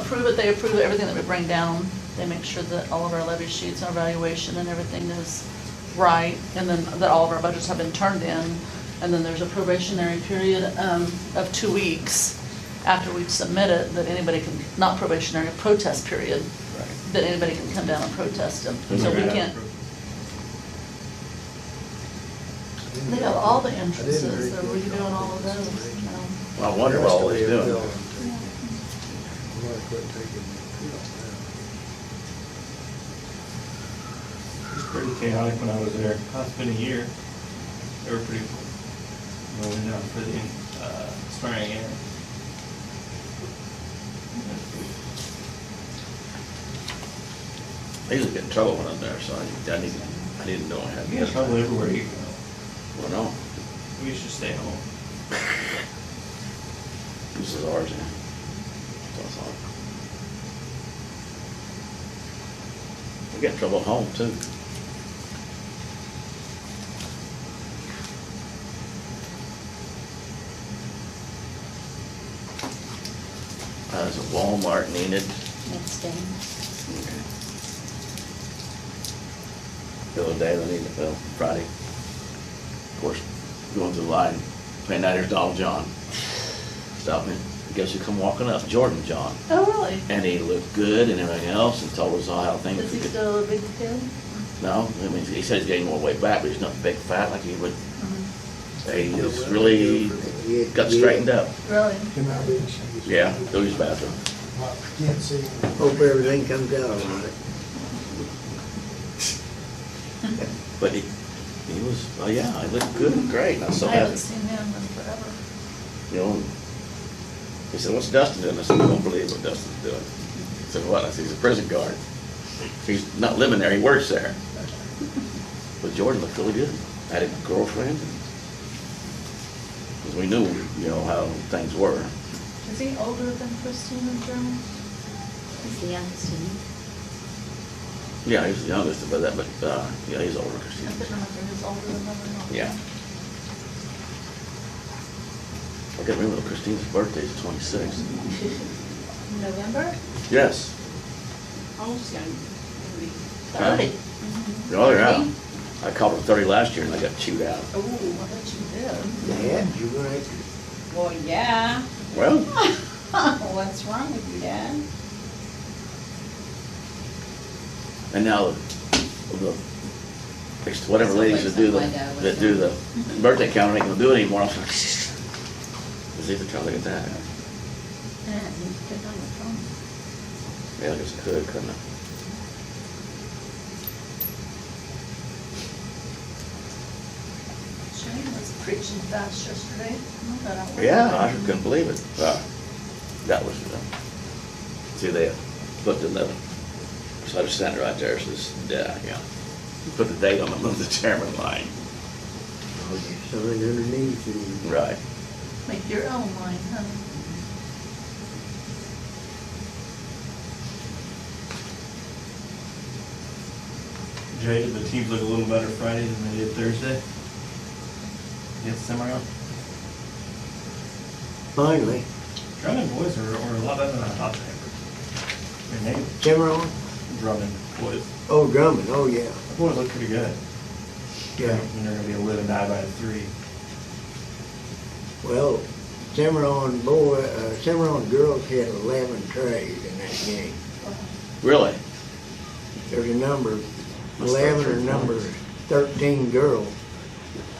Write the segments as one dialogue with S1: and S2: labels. S1: approve it, they approve everything that we bring down. They make sure that all of our levy sheets and evaluation and everything is right, and then that all of our budgets have been turned in. And then there's a probationary period um, of two weeks after we submit it, that anybody can, not probationary, protest period, that anybody can come down and protest them. So we can't, they got all the entrances, they're redoing all of those. you know.
S2: I wonder what all he's doing.
S3: I'm gonna quit taking pills
S4: was pretty chaotic when I was there. Uh, It's been a year. They were pretty, rolling down for the, uh, swearing in.
S2: I usually get in trouble when I'm there, so I, I need, I didn't know I had.
S4: You get
S2: this.
S4: trouble everywhere you go.
S2: Well, no,
S4: We should stay home.
S2: this is ours, yeah. That's all. We get in trouble at home too. Uh, is a Walmart needed?
S1: Next day.
S2: Bill day they need to bill Friday. Of course, going through the line, paying that, here's Donald John. Stop me. Guess who come walking up? Jordan John.
S1: Oh, really?
S2: And he looked good and everything else and told us all how things.
S1: Is he still a big kid?
S2: No, I mean, he said he's getting more weight back, but he's not big fat like he would,
S1: Mm-hmm.
S2: he was
S3: now.
S2: really got straightened up.
S1: Really?
S3: Can I be in shoes?
S2: Yeah, go to his bathroom.
S3: I Can't see. him.
S5: Hope everything comes out all right.
S2: But he, he was, oh yeah, he looked good, and great, and I
S1: I
S2: saw
S1: haven't
S2: that.
S1: seen him in forever.
S2: you know, and he said, what's Dustin doing? I said, I don't believe what Dustin's doing. He said, what? I said, he's a prison guard. He's not living there, he works there. But Jordan looked really good. Had a girlfriend. Because we knew, you know, how things were.
S1: Is he older than Christine and German?
S6: He's the youngest, isn't he?
S2: Yeah, he was the youngest but that, but, uh, yeah, he's older. 'cause
S1: I couldn't
S2: he-
S1: remember if he was older than them or not.
S2: Yeah. I can't remember Christine's birthday is twenty-six.
S1: November?
S2: Yes.
S6: Almost Oh, young.
S2: Huh?
S1: Thirty.
S2: Oh, yeah. I called him thirty last year and I got chewed out.
S1: Oh, I bet you did.
S5: Dad, you right?
S6: Well, yeah.
S2: Well,
S6: What's wrong with you, Dad?
S2: And now, the, it's whatever ladies that do the, that do the birthday calendar ain't gonna do it anymore, I was like, let's either try to look at that.
S6: Yeah, you put on the phone.
S2: Yeah, I guess I could, couldn't I?
S1: Shane was preaching fast yesterday. I thought I was.
S2: Yeah, I couldn't believe it. Uh, That was, uh, see, they put the, level. so I just sent it right there, it says, yeah, yeah. Put the date on the, on the chairman line.
S5: Oh, your son underneath and
S2: Right.
S1: Make your own line, honey.
S4: Jay, did the teams look a little better Friday than they did Thursday? Get semi out.
S5: finally,
S4: Drummond boys are, are a lot better than I thought they were. Their name,
S5: Cameron,
S4: Drummond boys.
S5: oh, Drummond, oh, yeah,
S4: The boys look pretty good.
S5: yeah.
S4: And they're gonna be a live and die by three.
S5: Well, Cimarron boy, uh, Cimarron girls had eleven trays in that game.
S2: Really?
S5: There's a number,
S2: Must have
S5: eleven or
S2: three
S5: number
S2: points.
S5: thirteen girls.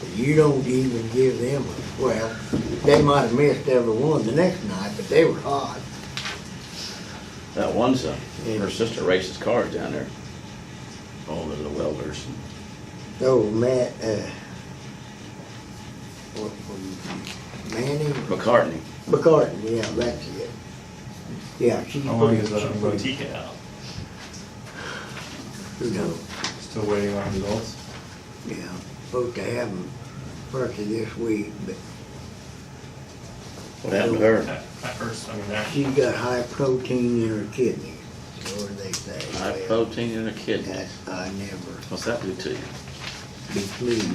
S5: that You don't even give them, a- well, they might have missed every one the next night, but they were hot.
S2: That one's, uh,
S5: Yeah.
S2: her sister races cars down there. Oh, they're the welders.
S5: Oh, Matt, uh, what, what, Manning?
S2: McCartney.
S5: McCartney, yeah, that's it. Yeah, she's
S4: How long
S5: pretty,
S4: is
S5: she's
S4: uh,
S5: pretty,
S4: Boutique out?
S5: you know,
S4: Still waiting on results?
S5: yeah, supposed to have them first of this week, but
S2: What happened to her?
S4: At at first, I mean, that.
S5: she's got high protein in her kidneys, or they say.
S2: High
S5: Well,
S2: protein in her kidneys.
S5: That's, I never
S2: What's that do to you?
S5: be pleased.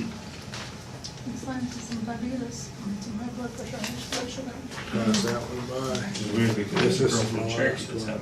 S1: It's like some diabetes, it's in my blood pressure, my blood sugar.
S3: Pass that one by.
S4: Which is weird because
S3: This
S4: the
S3: is
S4: girl from
S3: my
S4: Cherokee
S3: last
S4: that's
S3: one.
S4: had